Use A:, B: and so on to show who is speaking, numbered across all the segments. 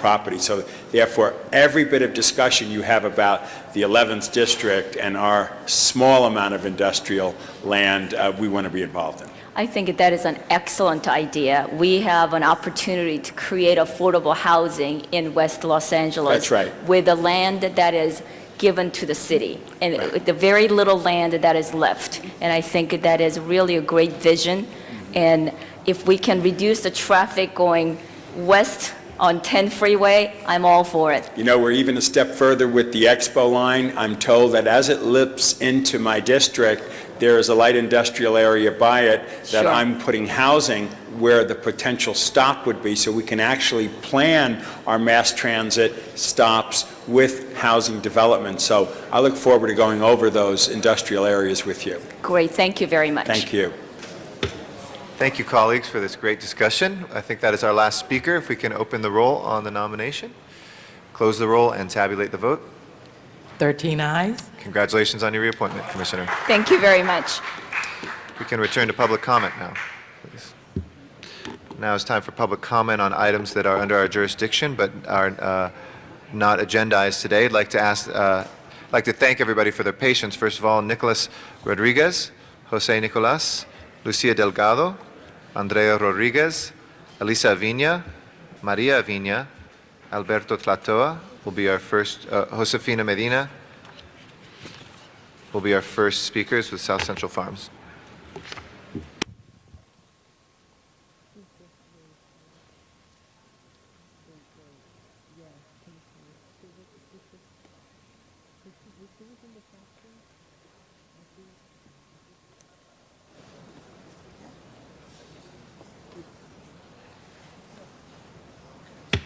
A: property. So therefore, every bit of discussion you have about the 11th district and our small amount of industrial land, uh, we want to be involved in.
B: I think that is an excellent idea. We have an opportunity to create affordable housing in West Los Angeles.
A: That's right.
B: With the land that is given to the city, and
A: Right.
B: with the very little land that is left. And I think that is really a great vision. And if we can reduce the traffic going west on 10 freeway, I'm all for it.
A: You know, we're even a step further with the Expo line. I'm told that as it lips into my district, there is a light industrial area by it that
B: Sure.
A: I'm putting housing where the potential stop would be, so we can actually plan our mass transit stops with housing development. So I look forward to going over those industrial areas with you.
B: Great, thank you very much.
A: Thank you.
C: Thank you, colleagues, for this great discussion. I think that is our last speaker. If we can open the roll on the nomination, close the roll, and tabulate the vote.
D: 13 eyes.
C: Congratulations on your reappointment, Commissioner.
B: Thank you very much.
C: We can return to public comment now, please. Now it's time for public comment on items that are under our jurisdiction but are uh, not agendized today. I'd like to ask, uh, I'd like to thank everybody for their patience. First of all, Nicholas Rodriguez, Jose Nicolas, Lucia Delgado, Andrea Rodriguez, Elisa Avina, Maria Avina, Alberto Tlatoa will be our first, uh, Josefina Medina will be our first speakers with South Central Farms.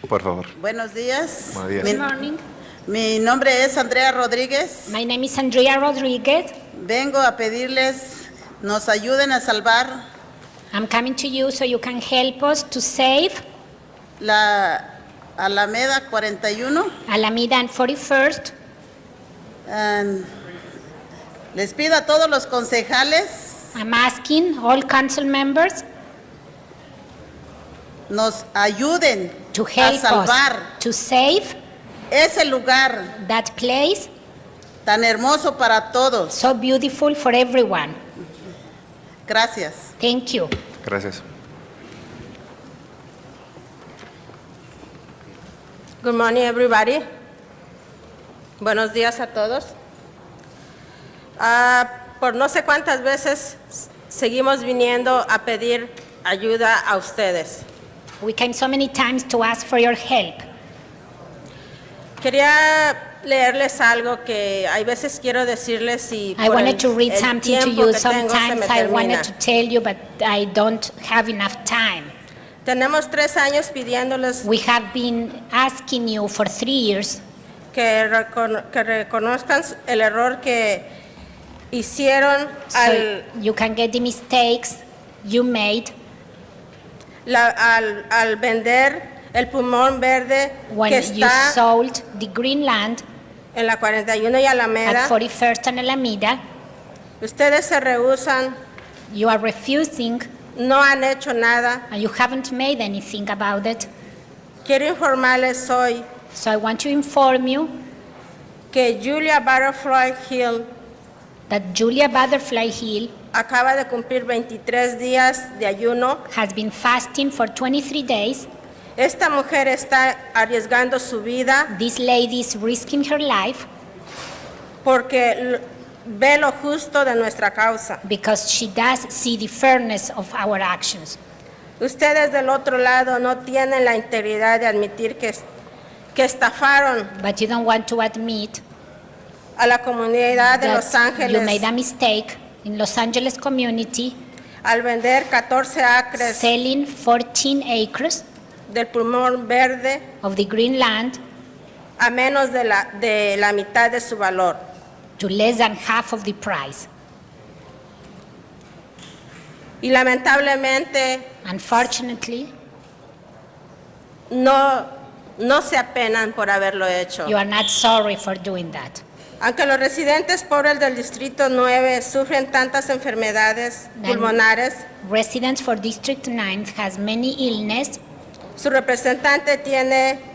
C: Por favor.
E: Buenos días.
C: Buenos días.
E: Mi,
F: Good morning.
E: mi nombre es Andrea Rodríguez.
F: My name is Andrea Rodriguez.
E: Vengo a pedirles nos ayuden a salvar
F: I'm coming to you so you can help us to save
E: la Alameda 41.
F: Alameda and 41st.
E: And les pido a todos los concejales
F: I'm asking all council members
E: nos ayuden
F: to
E: a
F: help
E: salvar
F: us to save
E: ese lugar
F: that place
E: tan hermoso para todos.
F: so beautiful for everyone.
E: Gracias.
F: Thank you.
C: Gracias.
G: Good morning, everybody. Buenos días a todos. Ah, por no sé cuántas veces s- seguimos viniendo a pedir ayuda a ustedes.
F: We came so many times to ask for your help.
G: Quería leerles algo que hay veces quiero decirles y
F: I
G: por el-
F: wanted to read
G: el
F: something to
G: tiempo
F: you.
G: que tengo se
F: Sometimes
G: me
F: I wanted
G: termina.
F: to tell you, but I don't have enough time.
G: Tenemos tres años pidiéndoles
F: We have been asking you for three years
G: que, recono- que reconozcan el error que hicieron
F: so
G: al
F: you can get the mistakes you made
G: La- al, al vender el pulmón verde
F: when
G: que
F: you
G: está
F: sold the green land
G: en la 41 y Alameda,
F: at 41st and Alameda.
G: ustedes se rehusan,
F: You are refusing
G: no han hecho nada.
F: and you haven't made anything about it.
G: Quiero informarles hoy
F: So I want to inform you
G: que Julia Butterfly Hill
F: that Julia Butterfly Hill
G: acaba de cumplir 23 días de ayuno.
F: has been fasting for 23 days.
G: Esta mujer está arriesgando su vida
F: This lady is risking her life
G: porque l- ve lo justo de nuestra causa.
F: because she does see the fairness of our actions.
G: Ustedes del otro lado no tienen la integridad de admitir que, es- que estafaron
F: But you don't want to admit
G: a la comunidad de Los
F: that you made a
G: Ángeles
F: mistake in Los Angeles community
G: al vender 14 acres
F: selling 14 acres
G: del pulmón verde
F: of the green land
G: a menos de la, de la mitad de su valor.
F: to less than half of the price.
G: Y lamentablemente
F: Unfortunately,
G: no, no se apenan por haberlo hecho.
F: you are not sorry for doing that.
G: Aunque los residentes pobres del Distrito 9 sufren tantas enfermedades
F: Nan-
G: pulmonares,
F: Residents for District 9 has many illness.
G: su representante tiene